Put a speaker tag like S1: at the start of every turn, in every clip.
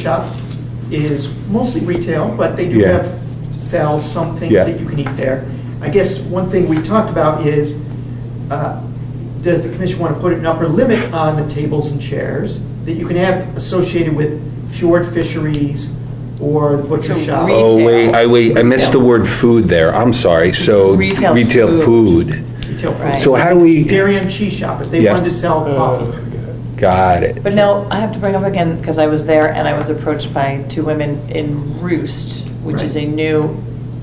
S1: shop is mostly retail, but they do
S2: Yeah.
S1: have, sell some things
S2: Yeah.
S1: that you can eat there. I guess one thing we talked about is, uh, does the commission want to put an upper limit on the tables and chairs that you can have associated with fjord fisheries or the butcher
S3: So
S1: shop?
S3: re-
S2: Oh, wait,
S3: Retail.
S2: I, wait, I missed the
S3: Retail.
S2: word food there, I'm sorry, so.
S3: Retail food.
S2: food,
S1: Retail food.
S3: Right.
S2: So how do we-
S1: Dairy and cheese shop, if they
S2: Yeah.
S1: wanted to sell
S4: Uh,
S1: coffee.
S2: got it.
S3: But now, I have to bring up again, because I was there and I was approached by two women in Roost, which is
S1: Right.
S3: a new,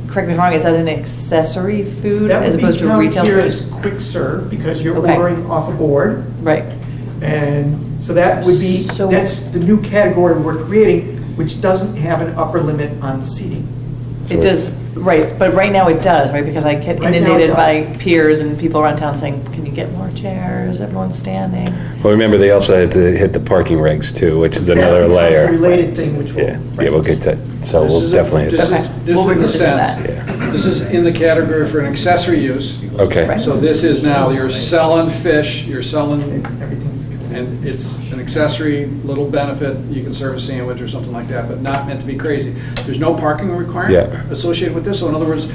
S3: correct me if I'm wrong, is that an accessory food
S1: That
S3: as
S1: would be
S3: opposed to
S1: counted
S3: retail
S1: here as
S3: food?
S1: quick serve because you're
S3: Okay.
S1: ordering off a board.
S3: Right,
S1: And so that would be,
S3: So-
S1: that's the new category we're creating, which doesn't have an upper limit on seating.
S3: it does, right, but right now it does, right, because I
S1: Right
S3: get
S1: now it
S3: inundated by
S1: does.
S3: peers and people around town saying, can you get more chairs, everyone's standing?
S2: Well, remember, they also had to hit the parking regs too, which is
S1: That
S2: another
S1: becomes a
S2: layer.
S1: Related thing, which will.
S2: Yeah, yeah, we'll get that, so
S4: This
S2: we'll
S4: is a-
S2: definitely,
S4: This
S3: Okay.
S4: is, this
S3: We'll
S4: in the
S3: revisit
S4: sense,
S2: that.
S4: this is in the category for an accessory use.
S2: okay,
S3: Right.
S4: So this is now, you're selling fish, you're selling,
S1: Everything's connected.
S4: and it's an accessory little benefit. You can serve a sandwich or something like that, but not meant to be crazy. There's no parking requirement
S2: Yeah.
S4: associated with this, so in other words,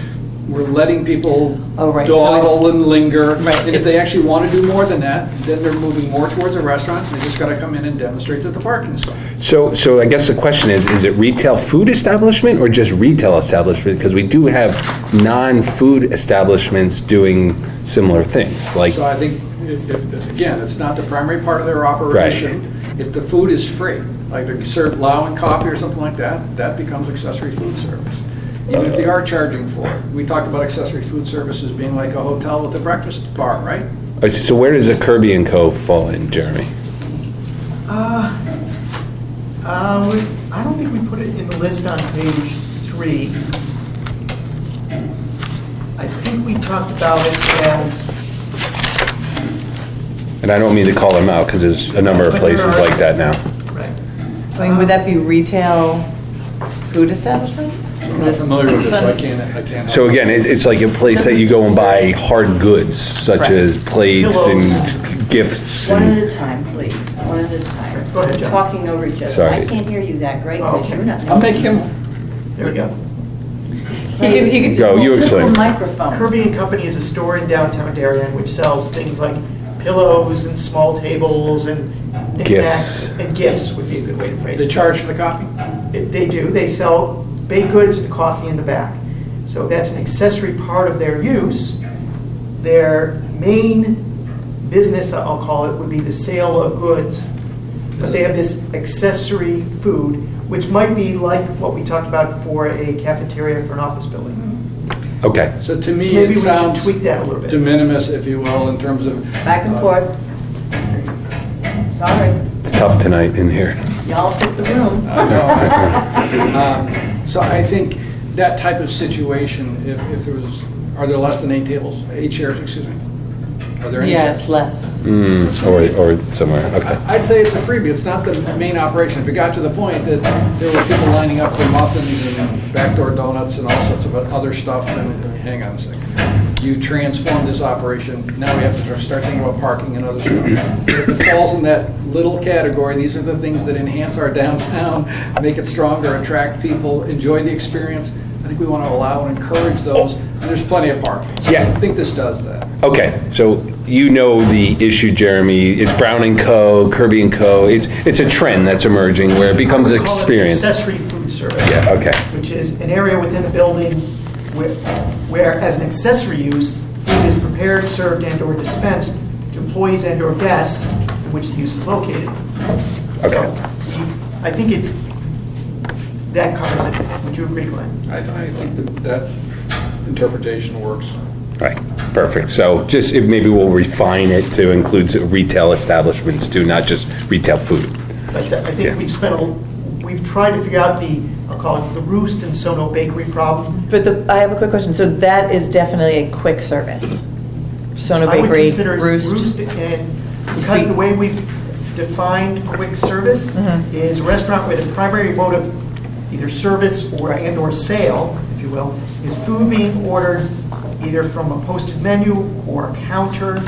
S4: we're letting people
S3: Oh, right, so it's-
S4: dawdle and linger.
S3: Right,
S4: And if
S3: it's-
S4: they actually want to do more than that, then they're moving more towards a restaurant. They just got to come in and demonstrate that the parking's fine.
S2: so, so I guess the question is, is it retail food establishment or just retail establishment? Because we do have non-food establishments doing similar things, like,
S4: So I think, if- if- again, it's not the primary part of their operation. If the food is free, like they serve lao and coffee or something like that, that becomes accessory food service. Even if they are charging for it. We talked about accessory food services being like a hotel with a breakfast bar, right?
S2: so where does a Kirby and Co. fall in, Jeremy?
S1: Uh, we- I don't think we put it in the list on page three. I think we talked about it as,
S2: And I don't mean to call them out, because there's a number of
S1: But there
S2: places
S1: are-
S2: like that now.
S1: right,
S3: I mean, would
S1: Uh-huh.
S3: that be retail food establishment?
S4: I'm not familiar with this, so I can't, I can't.
S2: So again, it, it's like a place that you go and buy hard goods, such
S3: Correct.
S2: as plates
S1: Pillows.
S2: and gifts
S5: One at
S2: and,
S5: a time, please, one at a time.
S1: Go ahead, Jen.
S5: Talking over each other.
S2: Sorry.
S5: I can't hear you that great,
S1: Oh,
S5: because
S1: okay.
S5: you're not.
S4: I'll make him,
S1: there we go.
S3: He could, he could.
S2: Go, you
S3: Little
S2: explain.
S3: Microphone.
S1: Kirby and Company is a store in downtown Darien which sells things like pillows and small tables and knickknacks.
S2: Gifts.
S1: And gifts would be a good way to phrase
S4: they
S1: it.
S4: charge for the coffee.
S1: They- They do, they sell baked goods and coffee in the back. So that's an accessory part of their use. Their main business, I'll call it, would be the sale of goods. But they have this accessory food, which might be like what we talked about for a cafeteria for an office building.
S2: okay.
S4: So to
S1: So
S4: me,
S1: maybe
S4: it
S1: we should
S4: sounds
S1: tweak that a little
S4: de
S1: bit.
S4: minimis, if you will, in terms of. uh,
S5: Back and forth. Sorry,
S2: It's tough tonight in here.
S5: y'all took the room.
S4: I know. Um, So I think that type of situation, if, if there was, are there less than eight tables, eight chairs, excuse me? Are there any?
S3: Yes,
S4: chairs?
S3: less.
S2: Mm, or, or somewhere, okay.
S4: I'd say it's a freebie, it's not the main operation. If it got to the point that there were people lining up for muffins and backdoor donuts and all sorts of other stuff, then hang on a second. You transformed this operation, now we have to start thinking about parking and other stuff. If it falls in that little category, these are the things that enhance our downtown, make it stronger, attract people, enjoy the experience. I think we want to allow and encourage those, and there's plenty of parking. So
S2: Yeah.
S4: I think this does that.
S2: Okay, so you know the issue, Jeremy. It's Brown and Co., Kirby and Co. It's, it's a trend that's emerging where it becomes
S1: We call it
S2: experience.
S1: Accessory food service.
S2: Yeah, okay.
S1: Which is an area within a building where, where as an accessory use, food is prepared, served, and/or dispensed to employees and/or guests in which the use is located.
S2: Okay.
S1: So, we- I think it's, that covers it. Would you agree, Glenn?
S4: I, I think that that interpretation works.
S2: Right, perfect. So just, if maybe we'll refine it to include retail establishments too, not just retail food.
S1: But I
S2: Yeah.
S1: think we've spent, a we've tried to figure out the, I'll call it the Roost and Sono Bakery problem.
S3: But the, I have a quick question. So that is definitely a quick service. Sono
S1: I would
S3: Bakery,
S1: consider
S3: Roost.
S1: and, because the way we've defined quick service
S3: Mhm.
S1: is a restaurant where the primary mode of either service or, and/or sale, if you will, is food being ordered either from a posted menu or a counter,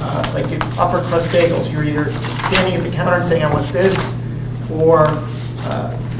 S1: uh, like if upper crust bagels, you're either standing at the counter and saying, I want this, or uh,